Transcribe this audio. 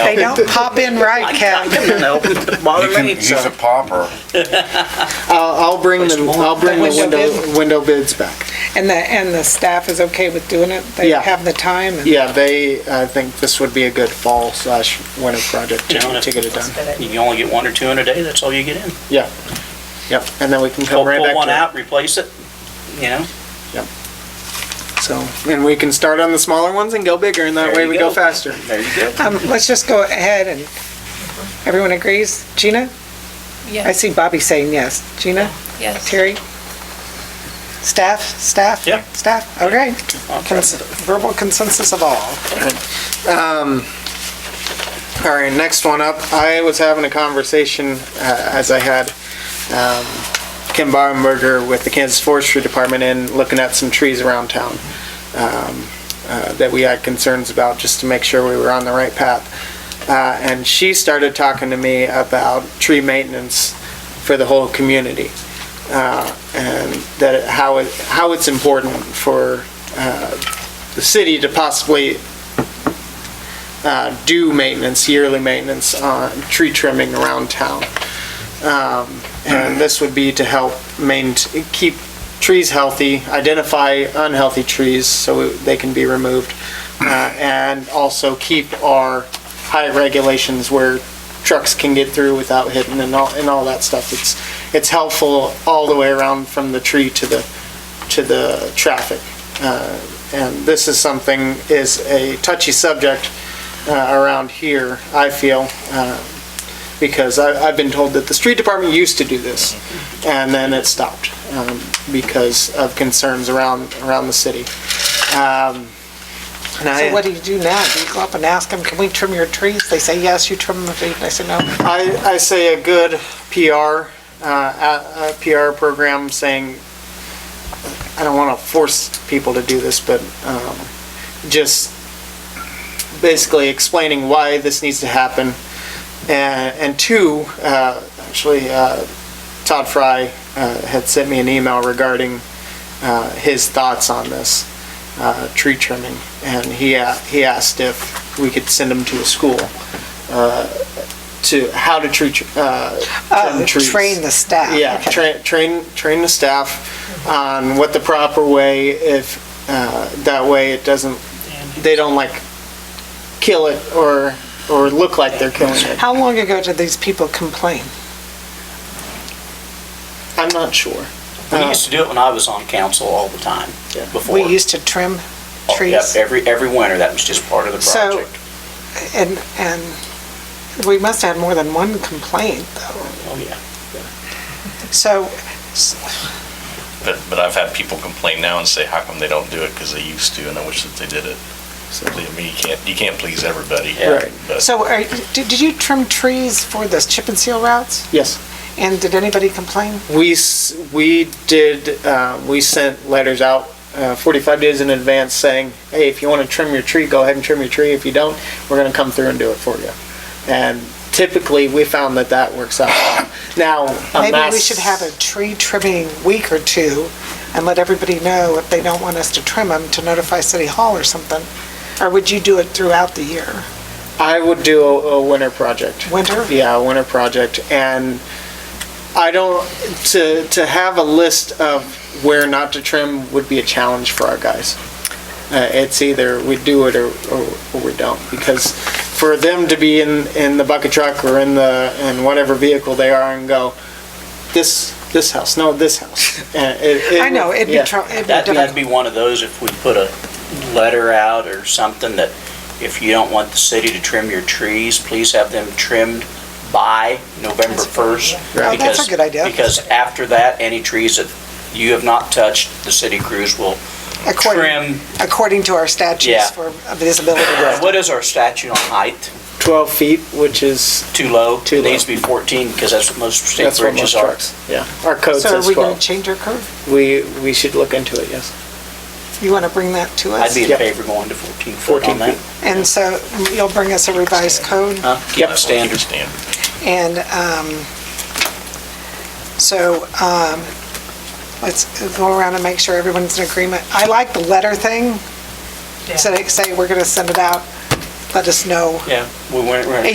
They don't pop in right, Cap. Bother You can me, use a so. popper. I'll, I'll bring the, I'll bring the Window window, bid? window bids back. And the, and the staff is okay with doing it? They Yeah. have the time? and- Yeah, they, I think this would be a good fall slash winter project to, Yeah. to get it done. You can only get one or two in a day, that's all you get in. Yeah, yep, and then we can Pull come right pull one back out, replace it, you know? to it. So, and we can start on the smaller ones and go bigger, and that There way you we go go. faster. There you go. Um, let's just go ahead and, everyone agrees? Gina? I Yes, see Bobby saying yes. Gina? yes. Terry? Staff, staff? Yeah. Staff, okay. I'll try Cons- to- Verbal consensus of all. All right, next one up. I was having a conversation, uh, as I had um, Kim Barmberger with the Kansas Forestry Department and looking at some trees around town um, uh, that we had concerns about, just to make sure we were on the right path. Uh, And she started talking to me about tree maintenance for the whole community uh, and that, how it, how it's important for uh, the city to possibly uh, do maintenance, yearly maintenance on tree trimming around town. Um, And this would be to help main, keep trees healthy, identify unhealthy trees so they can be removed, uh, and also keep our high regulations where trucks can get through without hitting and all, and all that stuff. It's, it's helpful all the way around from the tree to the, to the traffic. Uh, And this is something, is a touchy subject, uh, around here, I feel, uh, because I- I've been told that the street department used to do this, and then it stopped um, because of concerns around, around the city. Um, and I- So what do you do now? Do you go up and ask them, can we trim your trees? They say, yes, you trim them. And I say, no. I, I say a good PR, uh, a, a PR program saying, I don't want to force people to do this, but, um, just basically explaining why this needs to happen. And, and two, uh, actually, uh, Todd Fry, uh, had sent me an email regarding, uh, his thoughts on this, uh, tree trimming. And he, a- he asked if we could send him to a school, uh, to how to treat, uh, Oh, trim trees. train the staff. Yeah, Okay. train, train, train the staff on what the proper way, if, uh, that way it doesn't, they don't like kill it or, or look like they're killing it. How long ago did these people complain? I'm not sure. We used to do it when I was on council all the time, uh, Yeah. before. We used to trim Oh, yep, trees. Every, every winter, that was just part of the So- project. And, and we must have had more than one complaint, though. Oh, yeah. So, But, but I've had people complain now and say, how come they don't do it? Because they used to, and I wish that they did it. So, I mean, you can't, you can't please everybody. Right. But so are, did did you trim trees for the chip and seal routes? Yes. And did anybody complain? We, s- we did, uh, we sent letters out uh, 45 days in advance saying, hey, if you want to trim your tree, go ahead and trim your tree. If you don't, we're going to come through and do it for you. And typically, we found that that works out. well. Now, a Maybe we mass- should have a tree trimming week or two and let everybody know if they don't want us to trim them to notify City Hall or something. Or would you do it throughout the year? I would do a, a winter project. Winter? Yeah, a winter project, and I don't, to, to have a list of where not to trim would be a challenge for our guys. Uh, it's either we do it or, or, or we don't, because for them to be in, in the bucket truck or in the, in whatever vehicle they are and go, this, this house, no, this house. and it- it I know, would- it'd be yeah. trouble, it'd be That'd, that'd difficult. be one of those if we put a letter out or something that if you don't want the city to trim your trees, please have them trimmed by November That's a good 1st. idea. Oh, that's a because- good idea. Because after that, any trees that you have not touched, the city crews will trim. According, according to our Yeah. statutes for visibility. What is our statute on height? 12 feet, which is, Too low? Too It Needs low. to be 14 because that's what most state that's what most bridges are. trucks, yeah. Our code So says are we gonna 12. change our curve? We, we should look into it, yes. You wanna bring that to us? I'd be in Yep. favor going to 14 foot 14 on that. feet. And so you'll bring us a revised code? Huh? Yep. Keep standard. Standard. And um, so um, let's go around and make sure everyone's in agreement. I like the letter thing, so they say we're going to send it out. let us know Yeah, we went, we're gonna